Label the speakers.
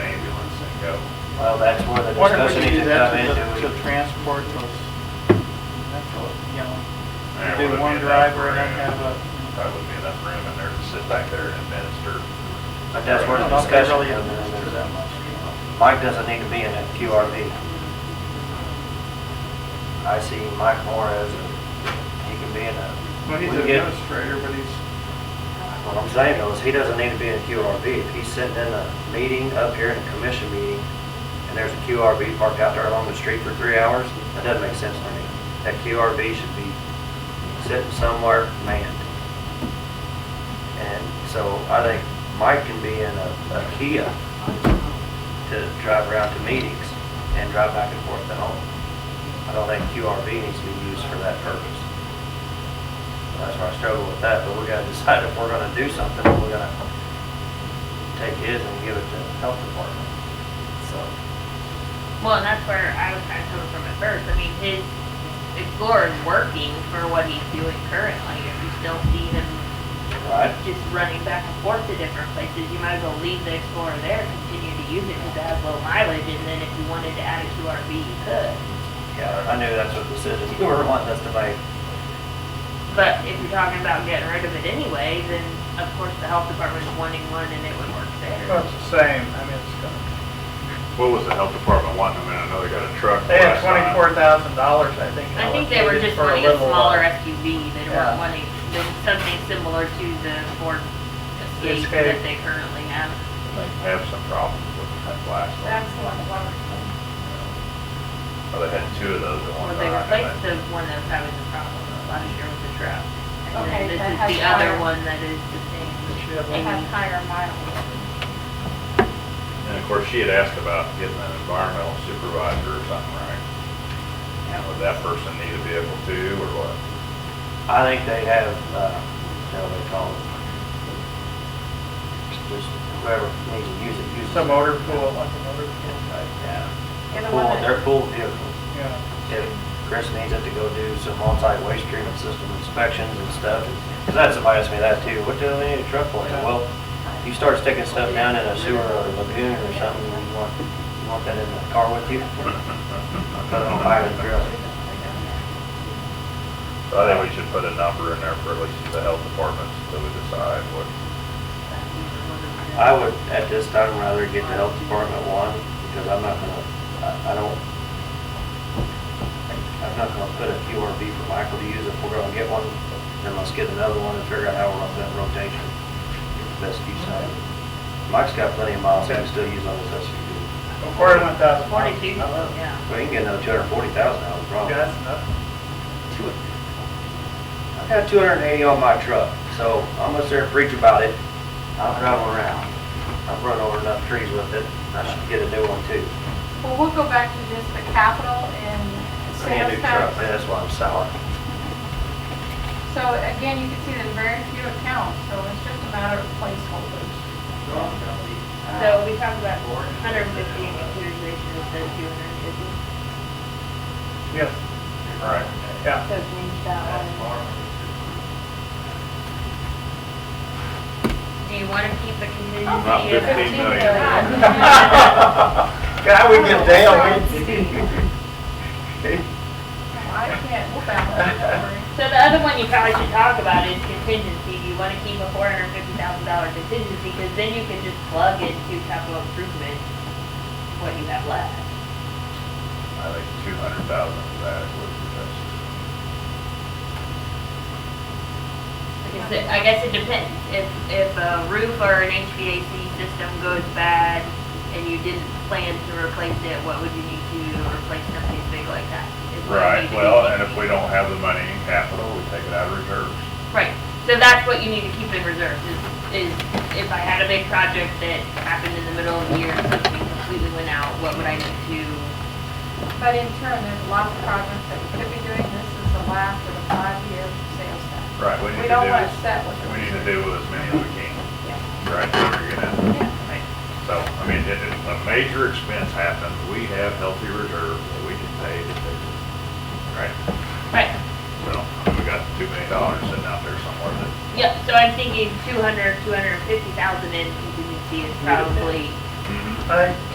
Speaker 1: Well, that's where the
Speaker 2: Wonder if
Speaker 1: discussion
Speaker 2: we could
Speaker 1: needs to
Speaker 2: do that
Speaker 1: come
Speaker 2: to the-
Speaker 1: into.
Speaker 2: to transport those, you know,
Speaker 3: There
Speaker 2: do
Speaker 3: wouldn't be
Speaker 2: one
Speaker 3: enough
Speaker 2: driver and then
Speaker 3: room.
Speaker 2: have a,
Speaker 3: Probably wouldn't be enough room in there to sit back there and administer.
Speaker 1: But that's
Speaker 2: I
Speaker 1: where the
Speaker 2: don't know if they
Speaker 1: discussion
Speaker 2: really
Speaker 1: comes
Speaker 2: administer
Speaker 1: in.
Speaker 2: that much. you
Speaker 1: Mike doesn't need to be in a QRV. I see Mike more as, a- he can be in a.
Speaker 4: Well, he's
Speaker 1: we
Speaker 4: an
Speaker 1: get-
Speaker 4: administrator, but he's,
Speaker 1: What I'm saying though is he doesn't need to be in a QRV. If he's sitting in a meeting up here in a commission meeting and there's a QRV parked out there along the street for three hours, that doesn't make sense to me. That QRV should be sitting somewhere manned. And so I think Mike can be in a, a Kia to drive around to meetings and drive back and forth to home. I don't think QRV needs to be used for that purpose. That's where I struggle with that, but we gotta decide if we're gonna do something, or we're gonna take his and give it to the health department. So,
Speaker 5: Well, and that's where I was kind of coming from at first. I mean, his Explorer is working for what he's doing currently. If you still see him
Speaker 1: right,
Speaker 5: just running back and forth to different places, you might as well leave the Explorer there, continue to use it because it has low mileage, and then if you wanted to add it to RV, you could.
Speaker 1: yeah, I knew that's what decision you were wanting us to make.
Speaker 5: But if you're talking about getting rid of it anyway, then of course the health department's wanting one and it would work
Speaker 2: know.
Speaker 5: there.
Speaker 2: Well, it's the same, I mean, it's gonna,
Speaker 3: What was the health department wanting them in? I know they got a truck.
Speaker 2: they
Speaker 3: last
Speaker 2: had
Speaker 3: time.
Speaker 2: twenty-four thousand dollars, I think.
Speaker 5: I think they were
Speaker 2: allocated
Speaker 5: just
Speaker 2: for
Speaker 5: wanting a
Speaker 2: little, uh,
Speaker 5: smaller SUV, they
Speaker 2: Yeah.
Speaker 5: weren't wanting, they- something similar to the Ford Escape
Speaker 2: Escape.
Speaker 5: that they currently have.
Speaker 3: They have some problems with that last one.
Speaker 5: That's the one,
Speaker 3: Well, they had two of those at one
Speaker 5: Well, they
Speaker 3: time.
Speaker 5: replaced
Speaker 3: and
Speaker 5: the one that was having the problem last year with the truck. And then
Speaker 6: Okay,
Speaker 5: this
Speaker 6: that
Speaker 5: is
Speaker 6: has
Speaker 5: the other
Speaker 6: fire.
Speaker 5: one that is the same.
Speaker 2: that she had
Speaker 6: They
Speaker 2: little-
Speaker 6: have higher miles.
Speaker 3: they- And of course, she had asked about getting an environmental supervisor or something, right? And would that person need a vehicle too, or what?
Speaker 1: I think they have, uh, how they call it? Just whoever needs to use it, use it.
Speaker 2: Some motor pool, like a motor pool,
Speaker 1: Yeah.
Speaker 6: Get a
Speaker 1: Pool,
Speaker 6: limit.
Speaker 1: their pool vehicles.
Speaker 2: yeah.
Speaker 1: if Chris needs it to go do some on-site waste treatment system inspections and stuff. Because I had somebody ask me that too, what do they need a truck for? I said, Well, you start sticking stuff down in a sewer or a lagoon or something, you want, you want that in the car with you? Put it on fire and drill it.
Speaker 3: I think we should put a number in there for at least the health department, so we decide what,
Speaker 1: I would, at this time, rather get the health department one, because I'm not gonna, I, I don't, I'm not gonna put a QRV for Michael to use if we're gonna get one, then let's get another one and figure out how we're gonna put it in rotation. Best use out of it. Mike's got plenty of miles he can still use on his SUV.
Speaker 2: Forty-one thousand.
Speaker 5: Forty-two, yeah.
Speaker 1: Well, you can get another two hundred and forty thousand out of the problem.
Speaker 2: Yeah, that's nothing.
Speaker 1: I got two hundred and eighty on my truck, so I'm gonna sit there and preach about it. I'll drive around. I've run over enough trees with it. I should get a new one too.
Speaker 6: Well, we'll go back to just the capital and
Speaker 1: I need a
Speaker 6: sales
Speaker 1: new truck,
Speaker 6: tax.
Speaker 1: man, that's why I'm sour.
Speaker 6: So again, you can see there's very few accounts, so it's just a matter of placeholders.
Speaker 5: So we talked about hundred and fifty in computerization instead of two hundred and fifty.
Speaker 2: Yes,
Speaker 3: right?
Speaker 2: yeah.
Speaker 5: So change that one. Do you want to keep the contingency?
Speaker 3: Not
Speaker 5: as-
Speaker 3: 15 million.
Speaker 2: God, we get down.
Speaker 6: I can't, we'll balance it, don't worry.
Speaker 5: So the other one you probably should talk about is contingency. Do you want to keep a four hundred and fifty thousand dollar contingency? Because then you can just plug into capital improvement what you have left.
Speaker 3: I think two hundred thousand of that would be best.
Speaker 5: Because it- I guess it depends. If, if a roof or an HVAC system goes bad and you didn't plan to replace it, what would you need to do to replace something big like that? Is what you
Speaker 3: Right,
Speaker 5: need to
Speaker 3: well,
Speaker 5: keep.
Speaker 3: and if we don't have the money in capital, we take it out of reserves.
Speaker 5: Right, so that's what you need to keep in reserve, is, is if I had a big project that happened in the middle of the year, and something completely went out, what would I need to?
Speaker 6: But in turn, there's lots of projects that we could be doing. This is the last of the five-year sales tax.
Speaker 3: Right, we
Speaker 6: We
Speaker 3: need to
Speaker 6: don't
Speaker 3: do,
Speaker 6: want to
Speaker 3: as-
Speaker 6: set with the
Speaker 3: we need to
Speaker 6: reserve.
Speaker 3: do with as many as we can. Right, we're gonna,
Speaker 5: Right.
Speaker 3: so, I mean, if if a major expense happens, we have healthy reserves that we can pay to fix it. Right,
Speaker 5: Right,
Speaker 3: so, I mean, we got two million dollars sitting out there somewhere that
Speaker 5: yep, so I'm thinking two hundred, two hundred and fifty thousand in contingency is probably
Speaker 2: I think